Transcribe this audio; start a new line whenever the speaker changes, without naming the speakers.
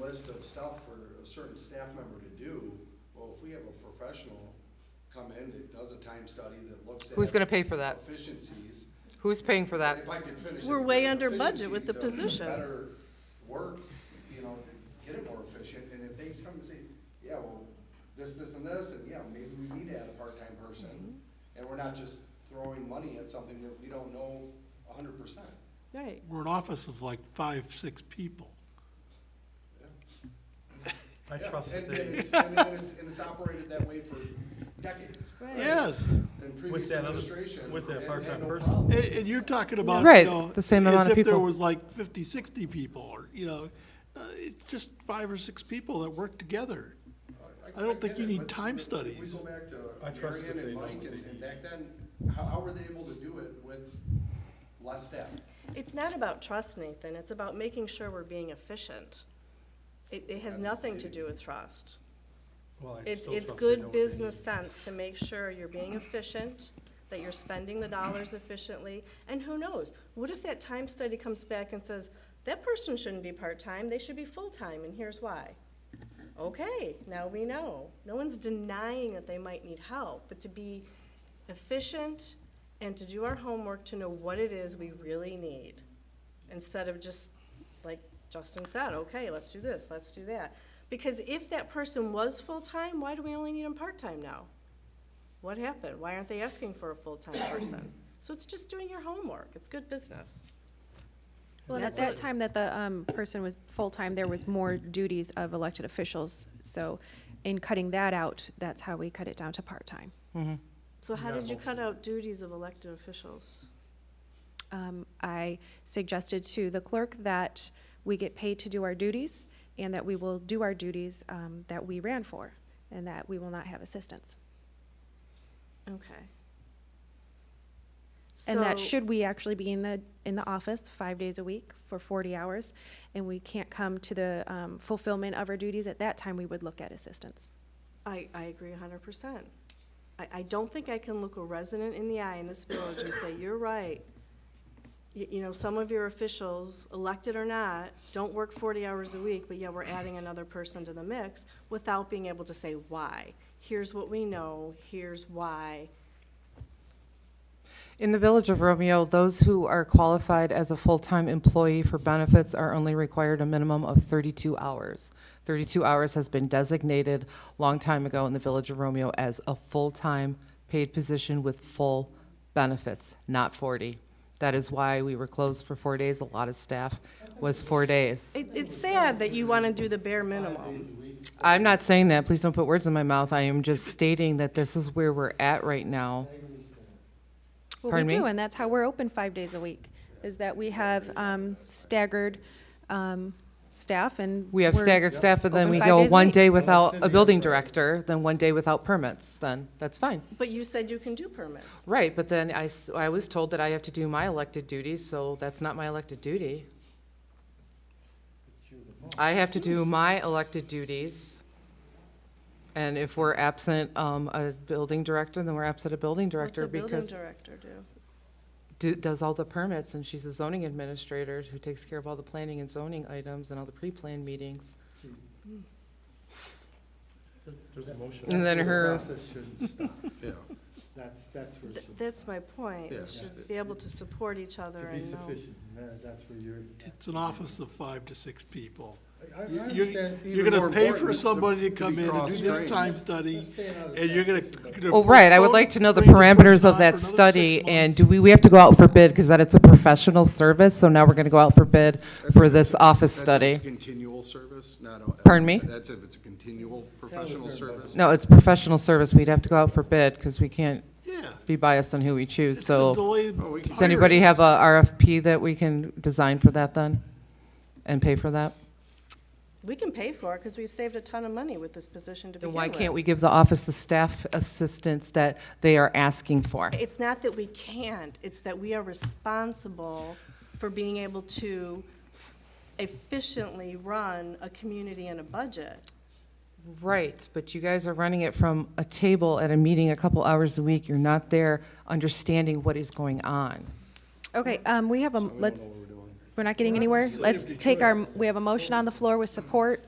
list of stuff for a certain staff member to do, well, if we have a professional come in that does a time study that looks at.
Who's gonna pay for that?
Efficiencies.
Who's paying for that?
If I could finish. it,
We're way
but
under budget with the
efficiencies does
position.
Better work, you know, to get it more efficient, and if things come and say, yeah, well, this, this, and this, and yeah, maybe we need to add a part-time person,
Mm-hmm.
and we're not just throwing money at something that we don't know a hundred percent.
Right.
We're an office of like five, six people.
I
Yeah,
trust that
and-
they,
And it's, and it's, and it's operated that way for decades.
Right.
Yes,
And previous
that other-
administration
with that
has had
part-time
no
person.
problem.
and, and you're talking about, you
Right,
know,
the same amount of
As if there
people.
was like 50, 60 people, or, you know, uh, it's just five or six people that work together. I don't
get
think you
it,
need
but if
time
We
studies.
go back
I
to
trust that
Marion and
they know
Mike,
what
and
they
and
need.
back then, how, how were they able to do it with less staff?
It's not about trust, Nathan. It's about making sure we're being efficient. It, it has
That's
nothing to
the-
do with trust.
well, I
It's,
still
it's
trust they know
good
what they need.
business sense to make sure you're being
Uh-huh.
efficient, that you're spending the dollars efficiently. And who knows? What if that time study comes back and says, that person shouldn't be part-time, they should be full-time, and here's why? Okay, now we know. No one's denying that they might need help, but to be efficient and to do our homework to know what it is we really need, instead of just, like Justin said, okay, let's do this, let's do that. Because if that person was full-time, why do we only need them part-time now? What happened? Why aren't they asking for a full-time person? So it's just doing your homework. It's good business.
Well, and at that time that the um, person was full-time, there was more duties of elected officials. So in cutting that out, that's how we cut it down to part-time.
So how
Yeah,
did you cut
mostly.
out duties of elected officials?
Um, I suggested to the clerk that we get paid to do our duties and that we will do our duties um, that we ran for and that we will not have assistance.
Okay.
And that
So-
should we actually be in the, in the office five days a week for 40 hours? And we can't come to the um, fulfillment of our duties, at that time, we would look at assistance.
I, I agree hundred percent. I, I don't think I can look a resident in the eye in this village and say, you're right. You, you know, some of your officials, elected or not, don't work forty hours a week, but yet we're adding another person to the mix without being able to say why. Here's what we know, here's why.
In the Village of Romeo, those who are qualified as a full-time employee for benefits are only required a minimum of 32 hours. 32 hours has been designated long time ago in the Village of Romeo as a full-time paid position with full benefits, not 40. That is why we were closed for four days. A lot of staff was four days.
It, it's sad that you wanna do the bare minimum.
I'm not saying that, please don't put words in my mouth. I am just stating that this is where we're at right now.
Well,
Pardon
we do,
me?
and that's how we're open five days a week, is that we have um, staggered um, staff and.
We have
we're-
staggered staff, and then
Open
we
five
go
days a
one
week.
day without a building director, then one day without permits, then that's fine.
But you said you can do permits.
Right, but then I, s- I was told that I have to do my elected duties, so that's not my elected duty. I have to do my elected duties. And if we're absent, um, a building director, then we're absent a building
What's a
director
building
because
director do?
do- does all the permits, and she's a zoning administrator who takes care of all the planning and zoning items and all the pre-planned meetings.
There's a motion.
And then
The
her
Process shouldn't stop.
Yeah,
That's, that's where it
Th-
should, to
That's my point. We
Yes.
should be able to support each other
be
and know.
sufficient, and that- that's where you're.
It's an office of five to six people.
I, I
You- you-
understand.
You're
Even
gonna
more
pay
important
for
is to-
somebody to
to
come
be
in and do this
cross-trained.
time study,
Staying out of
and you're gonna.
statute, but-
gonna
Well, Oh, right, I would
postpone-
like to know the
bring person
parameters
on
of
for another
that
six
study, and
months.
do we, we have to go out for bid, because that it's a professional service, so now we're gonna go out for bid for this office
That's if it's
study.
Continual service, not. a-
Pardon me?
That's if it's a continual professional service.
No, it's professional service, we'd have to go out for bid, because we can't
Yeah.
be biased on who we choose,
It's
so.
gonna delay
Oh, we can-
Does anybody have a
hirings.
RFP that we can design for that then? And pay for that?
We can pay for it because we've saved a ton of money with this position to begin
Then why
with.
can't we give the office the staff assistance that they are asking for?
It's not that we can't, it's that we are responsible for being able to efficiently run a community and a budget.
Right, but you guys are running it from a table at a meeting a couple hours a week. You're not there understanding what is going on.
Okay, um, we have a,
We don't know
let's,
what we're doing.
we're not getting anywhere. Let's take our, we have a motion on the floor with support.